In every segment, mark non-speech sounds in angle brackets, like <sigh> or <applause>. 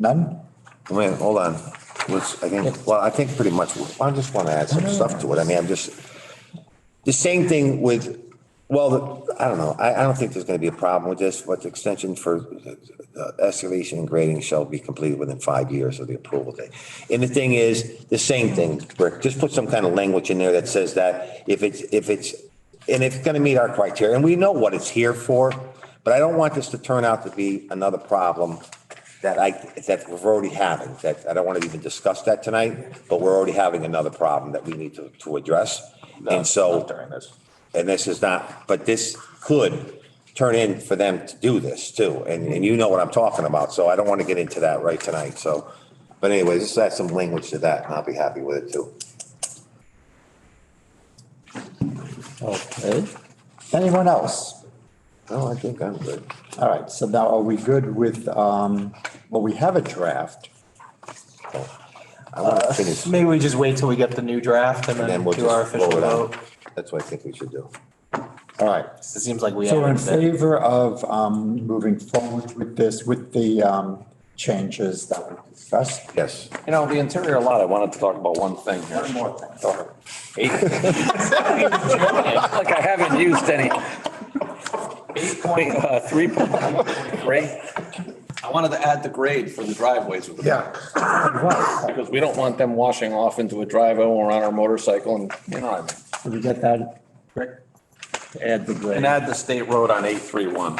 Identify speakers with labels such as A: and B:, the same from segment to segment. A: None?
B: Wait, hold on. Let's, I think, well, I think pretty much, I just want to add some stuff to it. I mean, I'm just, the same thing with, well, the- I don't know. I, I don't think there's going to be a problem with this, but the extension for uh, excavation and grading shall be completed within five years of the approval date. And the thing is, the same thing, Rick, just put some kind of language in there that says that if it's, if it's, and it's going to meet our criteria, and we know what it's here for, but I don't want this to turn out to be another problem that I, that we're already having, that I don't want to even discuss that tonight, but we're already having another problem that we need to, to address. And so. During this. And this is not, but this could turn in for them to do this too. And, and you know what I'm talking about, so I don't want to get into that right tonight, so. But anyways, just add some language to that and I'll be happy with it too.
A: Okay. Anyone else?
B: No, I think I'm good.
A: All right, so now are we good with, um, well, we have a draft.
B: I want to finish and
C: Maybe we just wait till we get the new draft and
B: then
C: then
B: we'll
C: do our
B: just
C: official
B: blow it
C: vote.
B: out. That's what I think we should do.
A: All right.
C: It seems like we.
A: So in
C: haven't been-
A: favor of, um, moving forward with this, with the, um, changes that we discussed?
B: Yes.
D: You know, the interior lot, I wanted to talk about one thing here. One more thing. Like I haven't used any. Eight point, uh, three point three. I wanted to add the grade for the driveways with the. Yeah. Because we don't want them washing off into a driveway when we're on our motorcycle and, you know, what
A: Did we get that? Add the
D: I mean.
A: grade.
D: And add the state road on eight three one.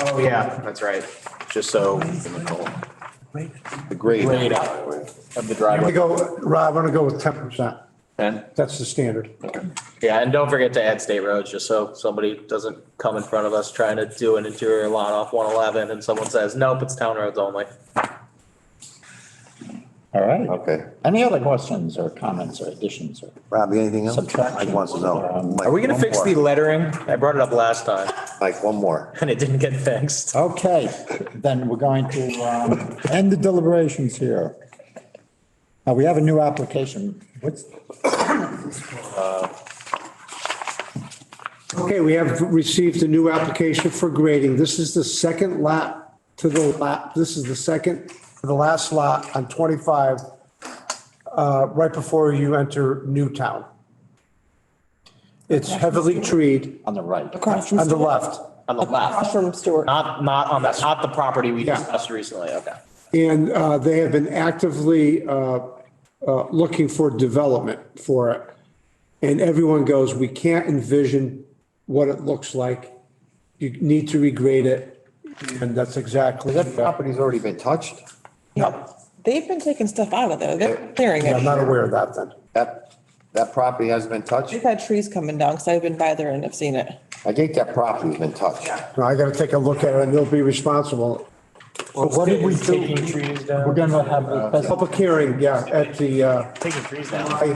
C: Oh, yeah, that's right. Just so.
B: The grade.
C: Grade out of the
E: I'm gonna
C: driveway.
E: go, Rob, I'm gonna go with ten percent.
D: Ten?
E: That's the standard.
C: Yeah, and don't forget to add state roads, just so somebody doesn't come in front of us trying to do an interior lot off one eleven and someone says, nope, it's town roads only.
A: All right.
B: Okay.
A: Any other questions or comments or additions or?
B: Rob, you anything else?
A: Subtraction.
B: Mike wants to know. Mike,
C: Um, Are we gonna
B: one
C: fix
B: more.
C: the lettering? I brought it up last time <laughs>
B: Mike, one more.
C: and it didn't get fixed.
A: Okay, then we're going to um, end the deliberations here. Now, we have a new application. What's,
E: Okay, we have received a new application for grading. This is the second lot to the lot, this is the second, to the last lot on 25, uh, right before you enter Newtown. It's heavily treed
A: on the right.
F: Across from.
E: on the
F: Stewart.
E: left.
C: On the
F: Across
C: left,
F: from Stewart.
C: not, not on the, not the property we
E: Yeah.
C: discussed recently, okay.
E: And uh, they have been actively uh, uh, looking for development for it. And everyone goes, we can't envision what it looks like. You need to regrade it. And that's exactly.
B: That property's already been touched?
F: They've been taking stuff out of there. They're clearing
E: I'm not
F: it.
E: aware of that then.
B: That, that property hasn't been touched?
F: They've had trees coming down because I've been by there and I've seen it.
B: I think that property's been touched.
E: No, I got to take a look at it and they'll be responsible.
A: But what did we
C: Is
A: do?
C: Taking trees down.
A: We're gonna have a special,
E: Public hearing, yeah, at the, uh,
C: Taking trees down.
E: I-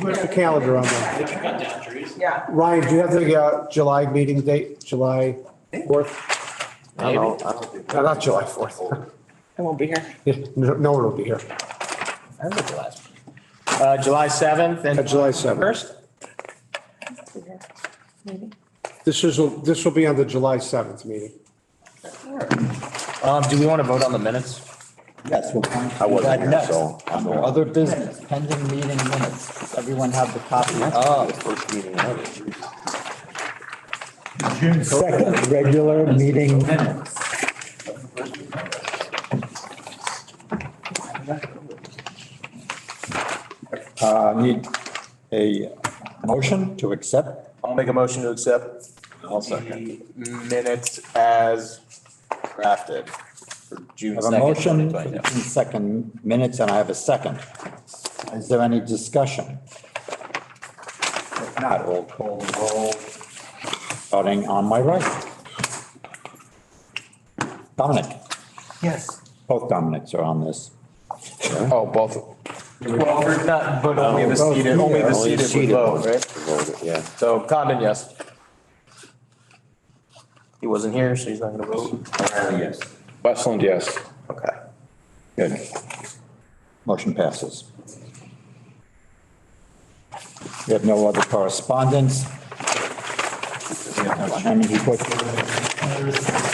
E: where's the calendar on that?
F: Yeah.
E: Ryan, do you have the uh, July meeting date, July 4th?
B: I don't know. I don't think-
E: No, Not July 4th.
F: I won't be here.
E: <laughs> No no one will be here.
C: I was at the last one. Uh, July seventh
E: Uh,
C: and.
E: July 7th.
C: First?
F: Maybe.
E: This is, this will be on the July 7th meeting.
C: Um, do we want to vote on the minutes?
A: yes, we're going
B: I
A: to do
B: wasn't
A: that
B: here,
A: next.
B: so I'm
A: Under
B: going.
A: other business, pending meeting minutes. Does everyone have the copy? Oh.
B: First meeting ever.
A: Second regular meeting minutes. Uh, need a motion to accept?
C: I'll make a motion to accept. I'll second. Minutes as drafted for June
A: I have a motion, for the June second minutes, and I have a second. Is there any discussion? If not, we'll call the roll, starting on my right. Dominic? Yes. Both Dominics are on this.
D: Oh, both.
C: Well, not, but only the
E: Both
C: seated, only the
B: Only
C: seated would
B: seated
C: vote,
B: ones
C: right?
B: voted, Yeah.
C: So Condon, yes. He wasn't here, so he's not gonna vote.
A: Yes.
D: Westland, yes.
C: Okay.
A: Good. Motion passes. We have no other correspondence. We have no planning report.